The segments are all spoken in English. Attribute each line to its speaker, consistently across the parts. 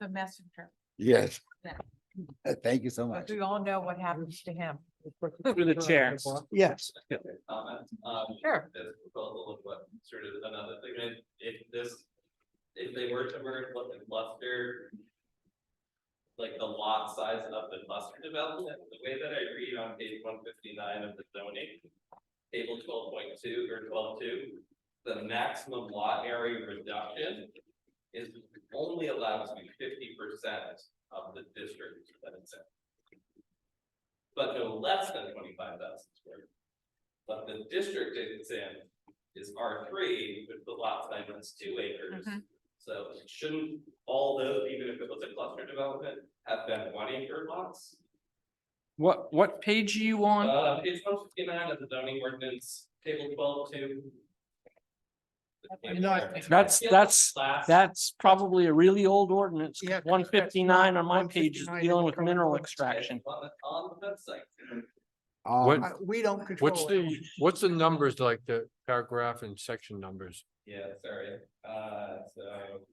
Speaker 1: the messenger.
Speaker 2: Yes. Uh,
Speaker 1: Yeah.
Speaker 2: Thank you so
Speaker 1: But
Speaker 2: much.
Speaker 1: we all know what happens to him.
Speaker 3: Through the chair.
Speaker 2: Yes.
Speaker 4: comment, um,
Speaker 1: Sure.
Speaker 4: that's a little bit sort of another thing, and if this, if they were to merge what the cluster. Like the lot size of the cluster development, the way that I read on page one fifty-nine of the zoning. Table twelve point two or twelve two, the maximum lot area reduction. Is only allowed to be fifty percent of the district that it's in. But no less than twenty-five thousand square but the district it's in is R three, with the lot size is two acres.
Speaker 1: Mhm.
Speaker 4: So shouldn't all those, even if it was a cluster development, have been one acre lots?
Speaker 3: What, what page are you on?
Speaker 4: Uh, it's one fifty nine of the zoning ordinance, table twelve two.
Speaker 3: That's, that's,
Speaker 4: Last-
Speaker 3: that's probably a really old ordinance.
Speaker 5: Yeah, 'cause
Speaker 3: One
Speaker 5: that's not-
Speaker 3: fifty-nine on my page is
Speaker 5: 159 is
Speaker 3: dealing with
Speaker 5: current
Speaker 3: mineral
Speaker 5: ordinance.
Speaker 3: extraction.
Speaker 4: On the, on the website.
Speaker 2: Um,
Speaker 5: Uh, We don't control.
Speaker 6: What's
Speaker 5: it.
Speaker 6: the, what's the numbers like the paragraph and section numbers?
Speaker 4: Yeah, sorry, uh, so.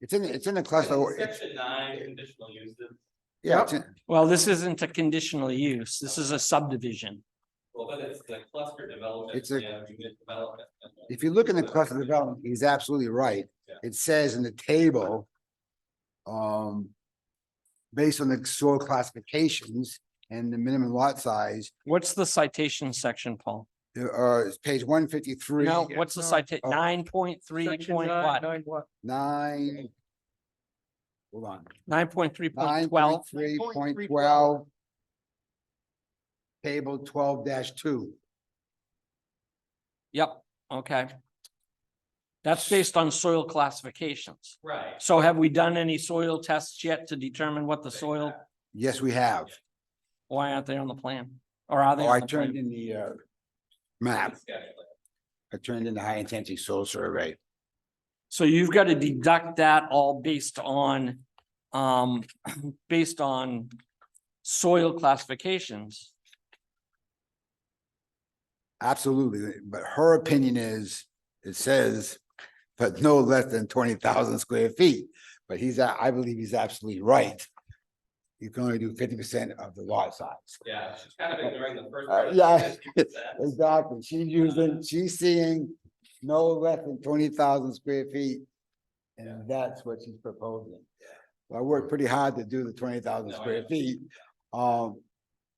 Speaker 2: it's in, the- it's in the cluster, or- it's-
Speaker 4: Section nine, conditional uses.
Speaker 2: yeah, it's in-
Speaker 3: Well, this isn't a conditional use. This is a subdivision.
Speaker 4: Well, but it's the cluster development.
Speaker 2: It's a-
Speaker 4: yeah, unit development.
Speaker 2: if you look in the cluster development, he's absolutely right.
Speaker 4: Yeah.
Speaker 2: It says in the table. Um. Based on the soil classifications and the minimum lot size,
Speaker 3: What's the citation section, Paul?
Speaker 2: there are, it's page one fifty-three.
Speaker 3: No, what's the
Speaker 5: no.
Speaker 3: citation?
Speaker 2: Oh.
Speaker 3: nine point three
Speaker 5: Section
Speaker 3: point
Speaker 5: nine-
Speaker 3: what?
Speaker 5: nine what?
Speaker 2: Nine. Hold on.
Speaker 3: Nine point three
Speaker 2: Nine point
Speaker 3: point twelve?
Speaker 2: three point
Speaker 5: 9.3.12.
Speaker 2: twelve. Table twelve dash two.
Speaker 3: Yep, okay. That's based on soil classifications.
Speaker 4: Right.
Speaker 3: So have we done any soil tests yet to determine what the soil,
Speaker 2: Yes, we have.
Speaker 3: why aren't they on the plan? Or are they?
Speaker 2: Oh, I
Speaker 3: on the
Speaker 2: turned
Speaker 3: plan?
Speaker 2: in the uh map.
Speaker 4: Schedule.
Speaker 2: I turned in the high intensity soil survey.
Speaker 3: So you've got to deduct that all based on, um, based on soil classifications.
Speaker 2: Absolutely, but her opinion is, it says, but no less than twenty thousand square feet. But he's, a- I believe he's absolutely right. You can only do fifty percent of the lot size.
Speaker 4: Yeah, she's kind of ignoring the first.
Speaker 2: Uh,
Speaker 4: part of
Speaker 2: yeah.
Speaker 4: the 50%.
Speaker 2: Exactly. She's
Speaker 4: Uh-huh.
Speaker 2: using, she's seeing no less than twenty thousand square feet. And that's what she's proposing. So I worked pretty hard to do the twenty thousand
Speaker 4: No, I
Speaker 2: square
Speaker 4: know.
Speaker 2: feet. Um,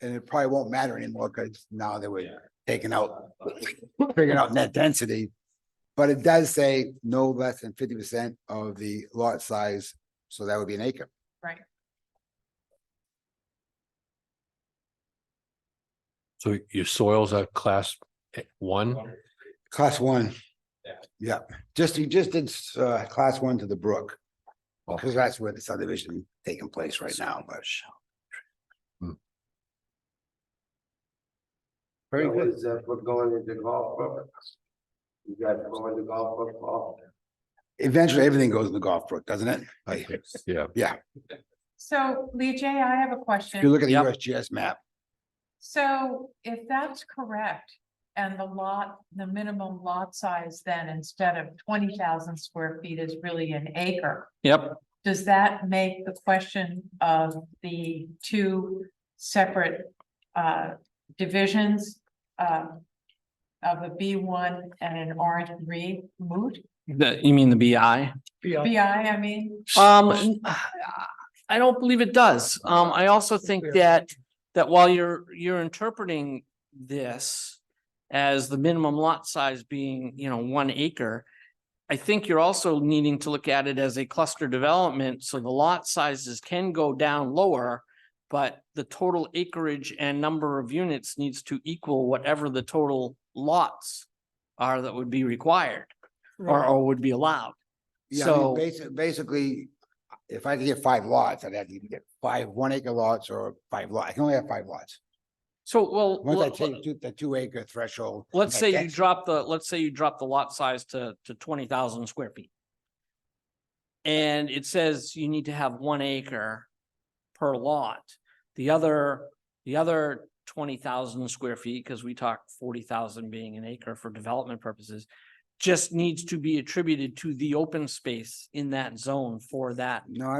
Speaker 2: and it probably won't matter anymore because now they were
Speaker 4: Yeah. Uh,
Speaker 2: taking out, figuring out net density. But it does say no less than fifty percent of the lot size, so that would be an acre.
Speaker 6: So your soils are class eh, one?
Speaker 2: Class one.
Speaker 4: Yeah.
Speaker 2: Yeah, just, you just did, uh, class one to the brook.
Speaker 3: Oh.
Speaker 2: Because that's where the subdivision taking place right now, but.
Speaker 6: Hmm.
Speaker 2: Very good.
Speaker 7: Is that we're going into golf book? You guys going to golf book, Paul?
Speaker 2: Eventually, everything goes in the golf brook, doesn't it? Like, if
Speaker 6: Yeah.
Speaker 1: So Lee J, I have a
Speaker 2: you
Speaker 1: question.
Speaker 2: look at the
Speaker 3: Yep.
Speaker 2: USGS map,
Speaker 1: So if that's correct, and the lot, the minimum lot size then instead of twenty thousand square feet is really an acre.
Speaker 3: Yep,
Speaker 1: Does that make the question of the two separate uh divisions uh of a B one and an R three moot?
Speaker 3: the, you mean the BI?
Speaker 5: Yeah,
Speaker 1: BI, I mean,
Speaker 3: Um, n- I don't believe it does. Um, I also think that, that while you're, you're interpreting this as the minimum lot size being, you know, one acre, I think you're also needing to look at it as a cluster development, so the lot sizes can go down lower, but the total acreage and number of units needs to equal whatever the total lots are that would be required or,
Speaker 5: right.
Speaker 3: or would be allowed.
Speaker 2: yeah, I
Speaker 3: So-
Speaker 2: mean, basi- basically, if I could get five lots, I'd have to get five one acre lots or five lot, I can only have five lots.
Speaker 3: So, well.
Speaker 2: Once I
Speaker 3: let-
Speaker 2: take two- the two acre threshold.
Speaker 3: Let's
Speaker 2: net
Speaker 3: say you
Speaker 2: density-
Speaker 3: drop the, let's say you drop the lot size to, to twenty thousand square feet. And it says you need to have one acre per lot. The other, the other twenty thousand square feet, because we talk forty thousand being an acre for development purposes, just needs to be attributed to the open space in that zone for that
Speaker 2: No,